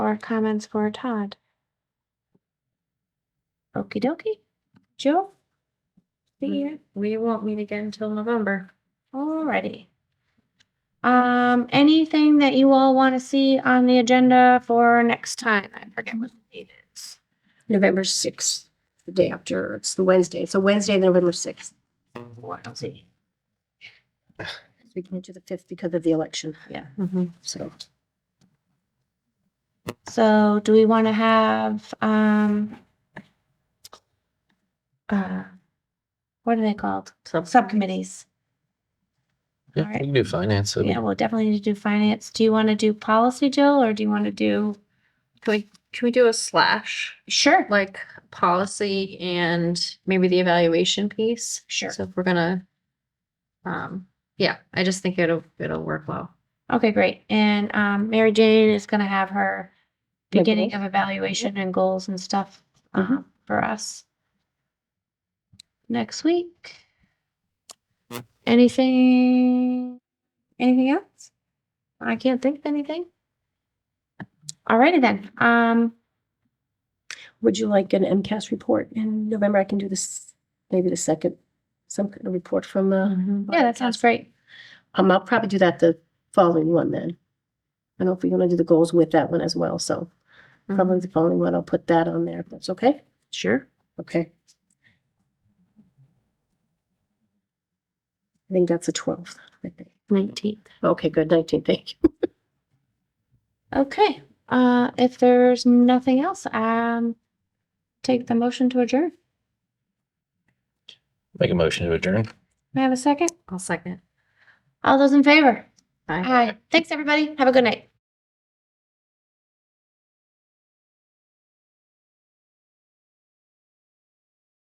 comments for Todd? Okie dokie. Joe? Mm. We, we won't meet again until November. Alrighty. Um, anything that you all want to see on the agenda for next time? I forget what the date is. November sixth, the day after, it's the Wednesday, so Wednesday, November sixth. What else? We can do the fifth because of the election, Mm-hmm. so. So do we want to have, um, uh, what are they called? Subcommittees. Yeah, Alright. we can do finance. so- Yeah, we'll definitely need to do finance. Do you want to do policy, Jill, or do you want to do? Can we can we do a slash Sure. like policy and maybe the evaluation piece? Sure. So if we're gonna, um, yeah, I just think it'll it'll work well. Okay, great. And um, Mary Jane is going to have her My beginning goals? of evaluation and goals and stuff Mhm. um, for us next week. Anything? Anything else? I can't think of anything. Alrighty then. Um, Would you like an MCAS report in November? I can do this, maybe the second, some kind of report from, uh, yeah, that sounds great. um, I'll probably do that the following one then. I don't know if we're gonna do the goals with that one as well, so Mm-hmm. probably the following one, I'll put that on there, if that's okay? Mm-hmm. Sure. Okay. I think that's the twelfth, I think. Nineteenth. Okay, good, nineteen, thank you. Okay. Uh, if there's nothing else, um, take the motion to adjourn. Make a motion to adjourn. May I have a second? I'll second. All those in favor? Aye. Thanks, everybody. Have a good night.